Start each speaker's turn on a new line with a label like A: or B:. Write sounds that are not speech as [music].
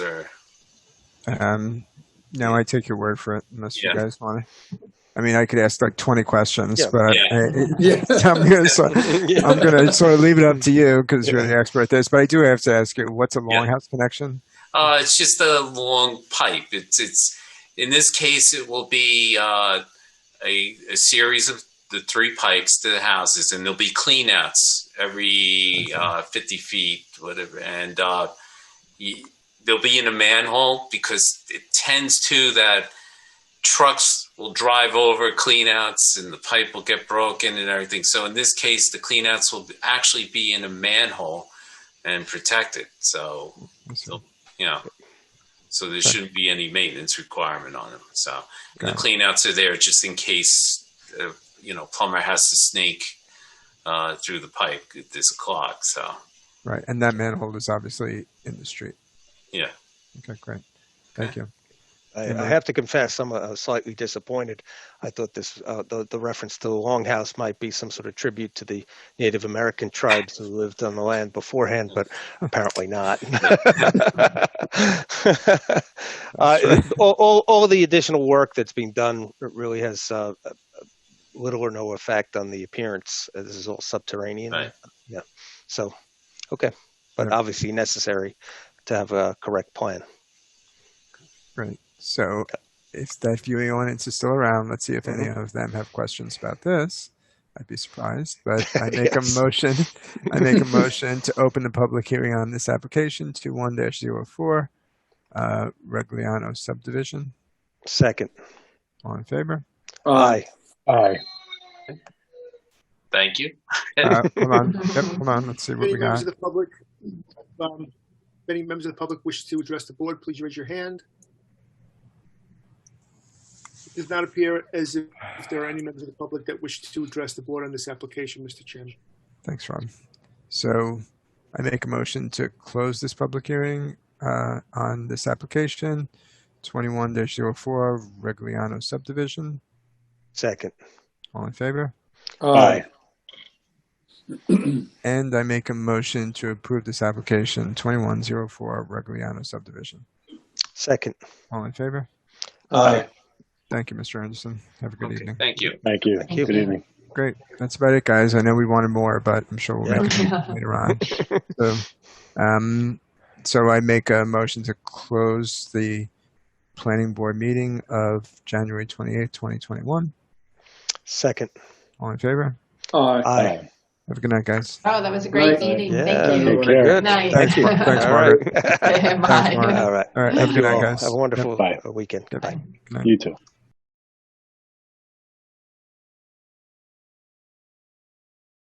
A: sure.
B: Um, no, I take your word for it unless you
A: Yeah.
B: guys want to. I mean, I could ask like 20 questions,
C: Yeah.
B: but
A: Yeah.
B: I,
C: [laughs] Yeah.
B: [laughs] I, am going to sort,
C: Yeah.
B: I'm going
C: [laughs]
B: to sort of leave it up to you because you're
C: Yeah.
B: the expert at this. But I do have to ask you, what's a longhouse connection?
A: Uh, it's just a long pipe. It's it's in this case it will be uh, a a series of the three pipes to the houses, and there'll be cleanouts every uh, fifty feet, whatever, and uh, y they'll be in a manhole because it tends to that trucks will drive over cleanouts and the pipe will get broken and everything. So in this case, the cleanouts will actually be in a manhole and protected. So you know. So there shouldn't be any maintenance requirement on them. So and the
B: Got
A: cleanouts are there just in case, uh, you know, plumber has to snake uh, through the pipe. There's a clog. So
B: Right. And that manhole is obviously in the street.
A: yeah,
B: Okay, great. Thank you.
C: I,
B: Yeah.
C: I have to confess, I'm uh, slightly disappointed. I thought this, uh, the, the reference to the longhouse might be some sort of tribute to the Native American tribes who lived on the land beforehand, but apparently not. [laughs] uh, [laughs] all, all, all the additional work that's been done really has uh, little or no effect on the appearance. Uh, This is all subterranean.
A: Right.
C: Yeah. So, okay. But
B: Yeah.
C: obviously necessary to have a correct plan.
B: Right. So if that viewing audience is still around, let's see if any of them have questions about this. I'd be surprised, but I make
C: Yes.
B: a motion. I make a motion to open the public hearing on this application to one dash zero four, uh, Regliano subdivision.
C: Second.
B: All in favor?
C: Aye.
D: Aye.
A: thank you.
B: Uh, hold on. Yep, hold on. Let's see
E: If
B: what
E: Any
B: we
E: members [laughs]
B: got.
E: of the public, um, if any members of the public wish to address the board, please raise your hand. It does not appear as if if there are any members of the public that wish to address the board on this application, Mr. Chairman.
B: Thanks, Rob. So I make a motion to close this public hearing uh, on this application, twenty-one dash zero four, Regliano subdivision.
C: Second.
B: All in favor?
D: Aye.
B: And I make a motion to approve this application, 2104 Regliano subdivision.
C: Second.
B: All in favor?
D: Aye.
B: Thank you, Mr. Anderson. Have a good
A: Okay,
B: evening.
A: thank you.
D: Thank you.
C: you.
D: Good evening.
B: Great. That's about it, guys. I know we wanted more, but I'm sure we'll
D: Yeah.
B: make it [laughs] later on. So, um, so I make a motion to close the planning board meeting of January 28th, 2021.
C: Second.
B: All in favor?
C: Aye.
B: Have a good night, guys.
F: Oh, that was a great
D: Right.
F: meeting.
C: Yeah.
F: Thank you.
D: Take care.
C: Good.
F: Nice.
B: Thanks,
F: [laughs]
B: Mark. Thanks,
C: All
B: Mark.
C: [laughs] right.
F: Bye.
B: Mark.
C: All right.
B: All right. Have a good
C: You
B: night,
C: all
B: guys.
C: Have a wonderful
D: Bye.
C: uh, weekend.
B: Yep.
C: Bye.
D: You too.